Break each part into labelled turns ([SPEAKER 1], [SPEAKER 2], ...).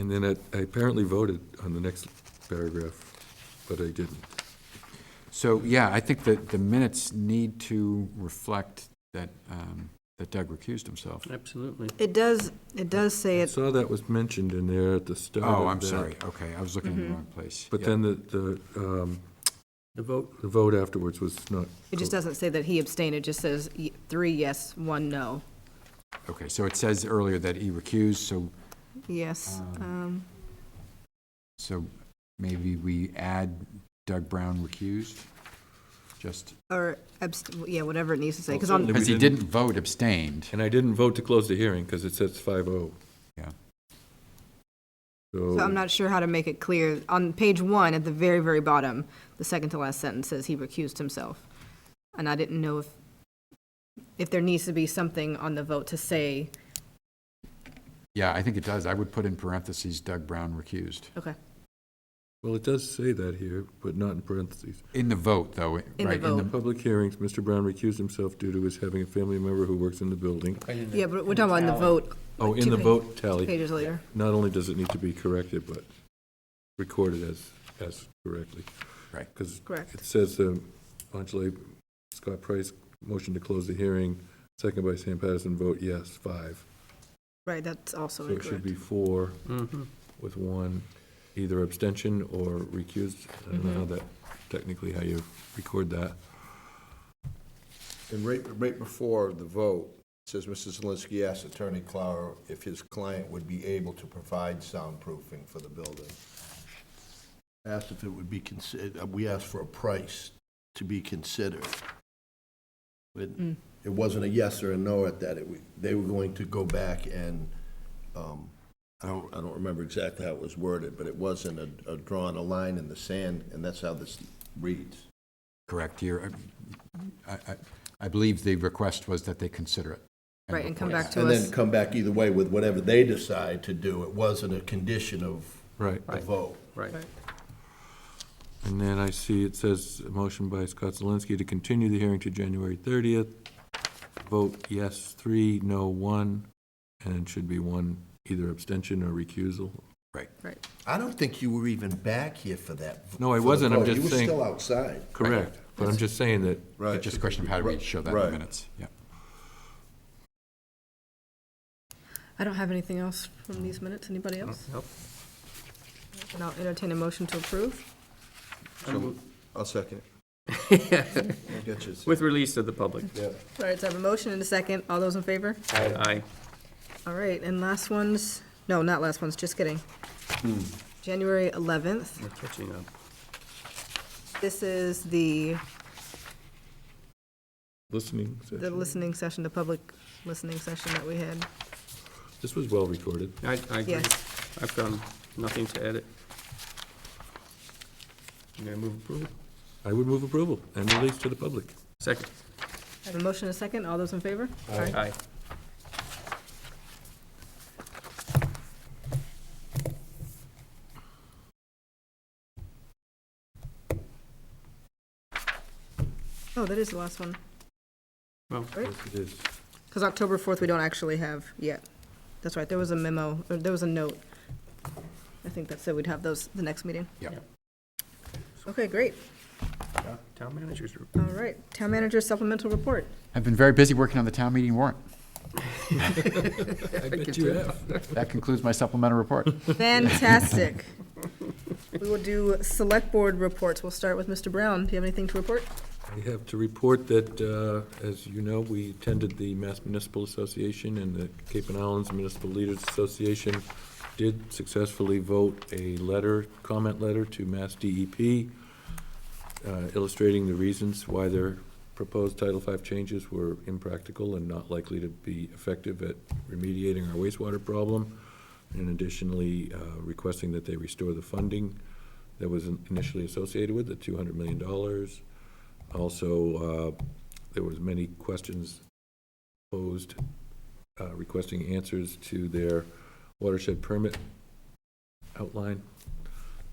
[SPEAKER 1] And then I- I apparently voted on the next paragraph, but I didn't.
[SPEAKER 2] So, yeah, I think that the minutes need to reflect that, um, that Doug recused himself.
[SPEAKER 3] Absolutely.
[SPEAKER 4] It does, it does say
[SPEAKER 1] I
[SPEAKER 4] it,
[SPEAKER 1] saw that was mentioned in there at the start
[SPEAKER 2] Oh,
[SPEAKER 1] of
[SPEAKER 2] I'm
[SPEAKER 1] that.
[SPEAKER 2] sorry, okay, I was looking
[SPEAKER 4] Mm-hmm.
[SPEAKER 2] in the wrong place.
[SPEAKER 1] But
[SPEAKER 2] Yeah.
[SPEAKER 1] then the, the, um,
[SPEAKER 3] The vote,
[SPEAKER 1] the vote afterwards was not.
[SPEAKER 4] it just doesn't say that he abstained, it just says y- three yes, one no.
[SPEAKER 2] Okay, so it says earlier that he recused, so,
[SPEAKER 4] Yes,
[SPEAKER 1] Ah.
[SPEAKER 2] Um,
[SPEAKER 4] um,
[SPEAKER 2] so maybe we add Doug Brown recused? Just,
[SPEAKER 4] or abst, yeah, whatever it needs to say, because
[SPEAKER 1] Well,
[SPEAKER 4] on,
[SPEAKER 1] certainly-
[SPEAKER 2] because he
[SPEAKER 1] didn't-
[SPEAKER 2] didn't vote, abstained.
[SPEAKER 1] And I didn't vote to close the hearing because it says five oh.
[SPEAKER 2] Yeah.
[SPEAKER 1] So.
[SPEAKER 4] so I'm not sure how to make it clear. On page one, at the very, very bottom, the second to last sentence says he recused himself. And I didn't know if, if there needs to be something on the vote to say,
[SPEAKER 2] Yeah, I think it does. I would put in parentheses Doug Brown recused.
[SPEAKER 4] okay,
[SPEAKER 1] Well, it does say that here, but not in parentheses.
[SPEAKER 2] In the vote, though, right?
[SPEAKER 4] the vote.
[SPEAKER 1] Public hearings, Mr. Brown recused himself due to his having a family member who works in the building.
[SPEAKER 4] yeah, but we're talking about in the vote.
[SPEAKER 1] Oh,
[SPEAKER 4] like,
[SPEAKER 1] in
[SPEAKER 4] two
[SPEAKER 1] the
[SPEAKER 4] pa-
[SPEAKER 1] vote tally,
[SPEAKER 4] Pages later.
[SPEAKER 1] not only does it need to be corrected, but recorded as, as correctly.
[SPEAKER 2] Right.
[SPEAKER 1] Because
[SPEAKER 4] Correct.
[SPEAKER 1] it says, um, Angela Scott Price, motion to close the hearing, second by Sam Patterson, vote yes, five.
[SPEAKER 4] Right, that's also
[SPEAKER 1] So it should
[SPEAKER 4] incorrect.
[SPEAKER 1] be four
[SPEAKER 3] mhm.
[SPEAKER 1] with one, either abstention or recused. I don't know how that, technically how you record that.
[SPEAKER 5] And right, right before the vote, it says, Mr. Zelinski asked Attorney Clower if his client would be able to provide soundproofing for the building. Asked if it would be considered, we asked for a price to be considered. It
[SPEAKER 4] Mm.
[SPEAKER 5] it wasn't a yes or a no at that, It wa- they were going to go back and, um, I don't, I don't remember exactly how it was worded, but it wasn't a, a drawing a line in the sand, and that's how this reads.
[SPEAKER 2] Correct, here. I, I, I believe the request was that they consider it.
[SPEAKER 4] Right, and come
[SPEAKER 2] report.
[SPEAKER 4] back to
[SPEAKER 5] And
[SPEAKER 4] us.
[SPEAKER 5] then come back either way with whatever they decide to do. It wasn't a condition of
[SPEAKER 1] Right.
[SPEAKER 5] the
[SPEAKER 3] Right.
[SPEAKER 5] vote.
[SPEAKER 3] Right.
[SPEAKER 1] And then I see it says, a motion by Scott Zelinski to continue the hearing to January 30th. Vote yes, three, no, one, and it should be one, either abstention or recusal.
[SPEAKER 5] I don't think you were even back here for that. v-
[SPEAKER 1] No, I
[SPEAKER 5] for the
[SPEAKER 1] wasn't. I'm
[SPEAKER 5] vote.
[SPEAKER 1] just saying-
[SPEAKER 5] You were still outside.
[SPEAKER 1] Correct, but I'm just saying that,
[SPEAKER 2] It's just a question of how do we show that in the minutes, yeah.
[SPEAKER 4] I don't have anything else from these minutes. Anybody else?
[SPEAKER 3] Nope.
[SPEAKER 4] And I'll entertain a motion to approve.
[SPEAKER 5] I'll second it. I get you.
[SPEAKER 3] With release of the public.
[SPEAKER 5] Yeah.
[SPEAKER 4] All right, so I have a motion and a second. All those in favor?
[SPEAKER 3] Aye.
[SPEAKER 4] All right, and last ones, no, not last ones, just kidding. January 11th,
[SPEAKER 3] We're catching up.
[SPEAKER 4] this is the,
[SPEAKER 1] listening
[SPEAKER 4] the
[SPEAKER 1] session,
[SPEAKER 4] listening session, the public listening session that we had.
[SPEAKER 1] this was well recorded.
[SPEAKER 3] I, I agree.
[SPEAKER 4] Yes.
[SPEAKER 3] I've got nothing to edit. I'm gonna move approval.
[SPEAKER 1] I would move approval and release to the public.
[SPEAKER 3] Second.
[SPEAKER 4] I have a motion and a second. All those in favor? Aye.
[SPEAKER 3] Aye.
[SPEAKER 4] Oh, that is the last one,
[SPEAKER 3] Well,
[SPEAKER 4] right?
[SPEAKER 1] Yes, it is.
[SPEAKER 4] Because October 4th, we don't actually have yet. That's right, there was a memo, or there was a note. I think that said we'd have those the next meeting.
[SPEAKER 2] Yeah.
[SPEAKER 4] Okay, great.
[SPEAKER 3] town- town managers. report.
[SPEAKER 4] All right, town manager supplemental report.
[SPEAKER 2] I've been very busy working on the town meeting warrant.
[SPEAKER 1] I bet you have.
[SPEAKER 2] That concludes my supplemental report.
[SPEAKER 4] Fantastic. We will do select board reports. We'll start with Mr. Brown. Do you have anything to report?
[SPEAKER 1] I have to report that, uh, as you know, we attended the Mass Municipal Association and the Cape and Islands Municipal Leaders Association did successfully vote a letter, comment letter to Mass DEP uh, illustrating the reasons why their proposed Title V changes were impractical and not likely to be effective at remediating our wastewater problem, and additionally uh, requesting that they restore the funding that was initially associated with the $200 million. Also, uh, there was many questions posed uh, requesting answers to their watershed permit outline.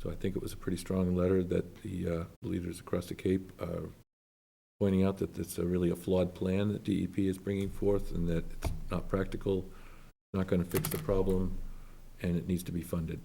[SPEAKER 1] So I think it was a pretty strong letter that the uh, leaders across the Cape are pointing out that it's a really a flawed plan that E DEP is bringing forth and that it's not practical, not going to fix the problem, and it needs to be funded.